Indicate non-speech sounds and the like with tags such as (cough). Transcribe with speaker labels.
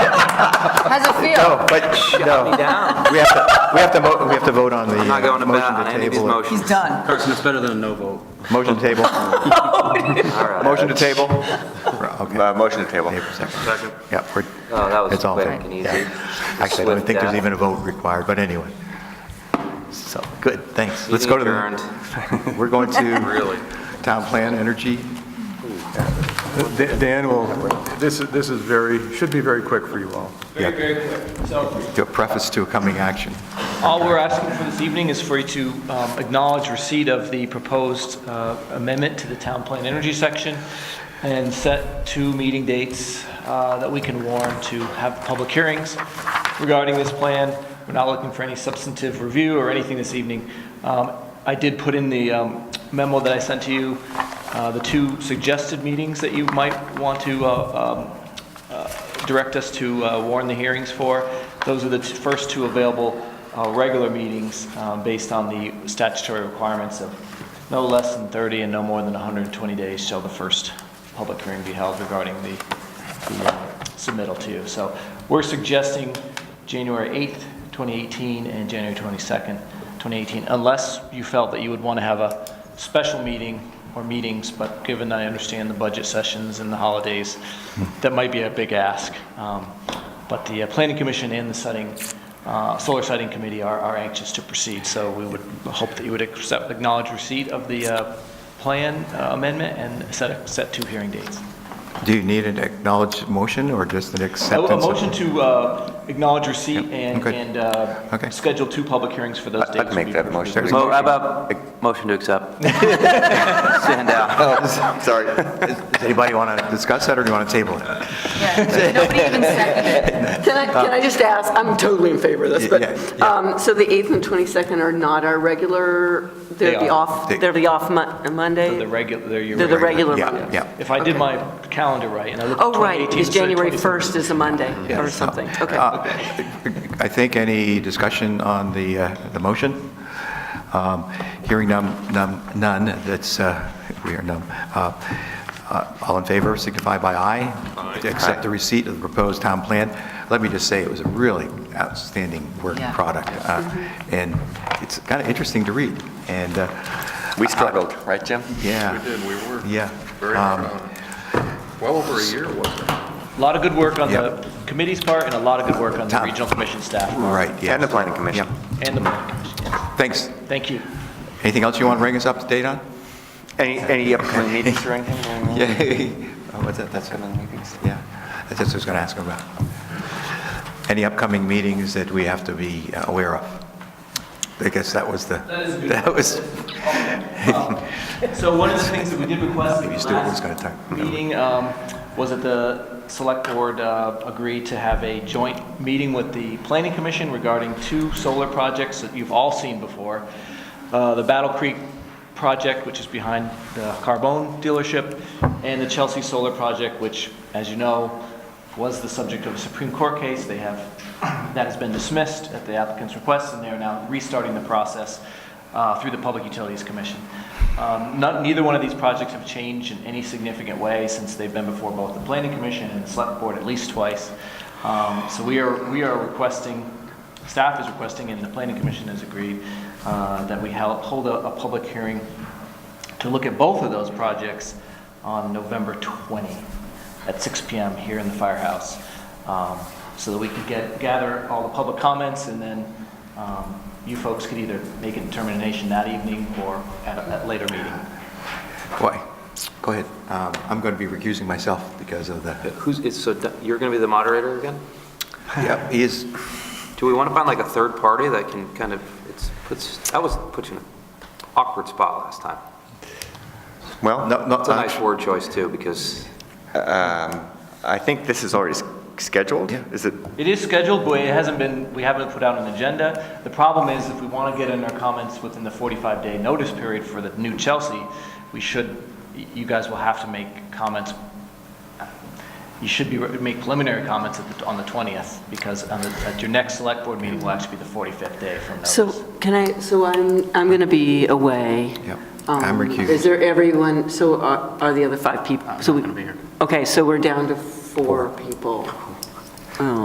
Speaker 1: deal.
Speaker 2: No, but, sh- no. (laughs)
Speaker 3: me down.
Speaker 2: We have to, we have to, mo- we have to vote on the.
Speaker 3: not going to
Speaker 2: motion
Speaker 3: bat on any of these
Speaker 2: table it.
Speaker 3: motions.
Speaker 1: He's done.
Speaker 4: Carson, it's better than a no vote.
Speaker 2: Motion to
Speaker 3: (laughs)
Speaker 2: table,
Speaker 3: All right.
Speaker 2: motion to table. Okay.
Speaker 5: Uh, Motion to table.
Speaker 2: Table second.
Speaker 3: Second.
Speaker 2: Yeah, we're.
Speaker 3: Oh, that was
Speaker 2: it's all in
Speaker 3: quick
Speaker 2: favor.
Speaker 3: and easy.
Speaker 2: Yeah.
Speaker 3: Just
Speaker 2: Actually, I don't
Speaker 3: swift
Speaker 2: think there's
Speaker 3: death.
Speaker 2: even a vote required, but anyway. So, good, thanks. Let's go to
Speaker 3: Meeting
Speaker 2: the,
Speaker 3: adjourned.
Speaker 2: we're going to
Speaker 3: (laughs) Really?
Speaker 2: town plan, energy.
Speaker 6: Dan Dan will, this is, this is very, should be very quick for you all.
Speaker 2: Very,
Speaker 7: very quick. So
Speaker 2: Do a preface to a coming action.
Speaker 7: all we're asking for this evening is for you to um, acknowledge receipt of the proposed uh, amendment to the town plan energy section and set two meeting dates uh, that we can warn to have public hearings regarding this plan. We're not looking for any substantive review or anything this evening. Um, I did put in the um, memo that I sent to you, uh, the two suggested meetings that you might want to uh, um, direct us to uh, warn the hearings for. Those are the t- first two available uh, regular meetings um, based on the statutory requirements of no less than 30 and no more than 120 days shall the first public hearing be held regarding the the, uh, submittal to you. So we're suggesting January 8th, 2018, and January 22nd, 2018, unless you felt that you would want to have a special meeting or meetings, but given I understand the budget sessions and the holidays, that might be a big ask. Um, But the uh, Planning Commission and the setting, uh, Solar Siting Committee are are anxious to proceed, so we would hope that you would accept, acknowledge receipt of the uh, plan uh, amendment and set, set two hearing dates.
Speaker 2: Do you need an acknowledged motion or just an
Speaker 7: A
Speaker 2: acceptance?
Speaker 7: a
Speaker 2: of-
Speaker 7: motion to uh, acknowledge receipt and,
Speaker 2: okay.
Speaker 7: and
Speaker 2: Okay.
Speaker 7: uh, schedule two public hearings for those dates.
Speaker 5: I'd
Speaker 7: would
Speaker 5: make
Speaker 7: be
Speaker 5: that
Speaker 7: perfect.
Speaker 5: motion.
Speaker 3: Mo- Oh, how about motion to accept? Stand down.
Speaker 5: Sorry.
Speaker 2: Does anybody want to discuss that or do you want to table it?
Speaker 1: Yeah, Nobody even seconded it.
Speaker 8: Can I, can I just ask, I'm totally in favor of this, but,
Speaker 2: Yeah, yeah.
Speaker 8: um, so the 8th and 22nd are not our regular,
Speaker 7: They
Speaker 8: they're the
Speaker 7: are.
Speaker 8: off,
Speaker 2: They-
Speaker 8: they're the off Mon-
Speaker 7: They're The
Speaker 8: Monday?
Speaker 7: regular, they're your
Speaker 8: They're the
Speaker 7: regular.
Speaker 8: regular
Speaker 2: Yeah,
Speaker 8: Monday?
Speaker 2: yeah.
Speaker 7: If I did my calendar right and I looked at
Speaker 8: Oh, right,
Speaker 7: 2018
Speaker 8: because
Speaker 7: instead of
Speaker 8: January
Speaker 7: 2017.
Speaker 8: 1st is a Monday or something, okay.
Speaker 2: Uh, I think any discussion on the, uh, the motion? Um, Hearing none, none, none, that's, uh, we are numb. Uh, uh, All in favor, signify by aye. To Accept the receipt of the proposed town plan. Let me just say, it was a really outstanding work
Speaker 1: Yeah.
Speaker 2: product, uh, and it's kind of interesting to read, and, uh,
Speaker 5: We struggled, right, Jim?
Speaker 2: yeah.
Speaker 9: We did, we were.
Speaker 2: Yeah.
Speaker 9: Very
Speaker 2: Um,
Speaker 9: much on it. Well over a year, wasn't it?
Speaker 7: A lot of good work on
Speaker 2: Yep.
Speaker 7: the committee's part and a lot of good work on the
Speaker 2: Tom.
Speaker 7: regional commission staff
Speaker 2: Right, yeah.
Speaker 5: And the planning commission.
Speaker 2: Yeah.
Speaker 7: and the planning commission.
Speaker 2: Thanks.
Speaker 7: Thank you.
Speaker 2: Anything else you want to bring us up to date on? (laughs)
Speaker 5: Any, any
Speaker 3: (laughs)
Speaker 5: upcoming meetings or anything?
Speaker 2: Yeah. Oh, What's that, that's good.
Speaker 5: Upcoming meetings?
Speaker 2: Yeah, that's what I was going to ask about. Any upcoming meetings that we have to be uh, aware of? I guess that was the,
Speaker 7: That is a good-
Speaker 2: that was,
Speaker 7: So one of the things that we did request at
Speaker 2: Maybe
Speaker 7: the
Speaker 2: Stuart was gonna
Speaker 7: last
Speaker 2: talk.
Speaker 7: meeting um, was that the select board uh, agreed to have a joint meeting with the planning commission regarding two solar projects that you've all seen before. Uh, The Battle Creek project, which is behind the Carbone dealership, and the Chelsea Solar project, which, as you know, was the subject of a Supreme Court case. They have, that has been dismissed at the applicant's request, and they are now restarting the process uh, through the Public Utilities Commission. Um, not- Neither one of these projects have changed in any significant way since they've been before both the Planning Commission and the Select Board at least twice. Um, So we are, we are requesting, staff is requesting, and the Planning Commission has agreed, uh, that we hel- hold a, a public hearing to look at both of those projects on November 20 at 6 PM here in the firehouse, um, so that we could get, gather all the public comments, and then um, you folks could either make a determination that evening or at a at later meeting.
Speaker 2: boy, go ahead. Um, I'm going to be recusing myself because of the,
Speaker 3: Who's, is, so Doug- you're going to be the moderator again?
Speaker 2: yeah, he is,
Speaker 3: Do we want to find like a third party that can kind of, it's, puts, that was, put you in an awkward spot last time.
Speaker 2: no,
Speaker 5: Well, no.
Speaker 2: no,
Speaker 3: That's a nice word choice too, because
Speaker 5: I think this is already s- scheduled.
Speaker 2: Yeah.
Speaker 5: Is it,
Speaker 7: It is scheduled, but it hasn't been, we haven't put out an agenda. The problem is, if we want to get in our comments within the 45-day notice period for the new Chelsea, we should, you guys will have to make comments, you should be, make preliminary comments at the- on the 20th, because on the- at your next select board meeting will actually be the 45th day from notice.
Speaker 8: So can I, so I'm, I'm going to be away.
Speaker 2: Yep.
Speaker 8: Um,
Speaker 2: I'm recused.
Speaker 8: Is there everyone, so are, are the other five people? I'm
Speaker 7: gonna be here.
Speaker 8: Okay, so we're down to four people. Oh.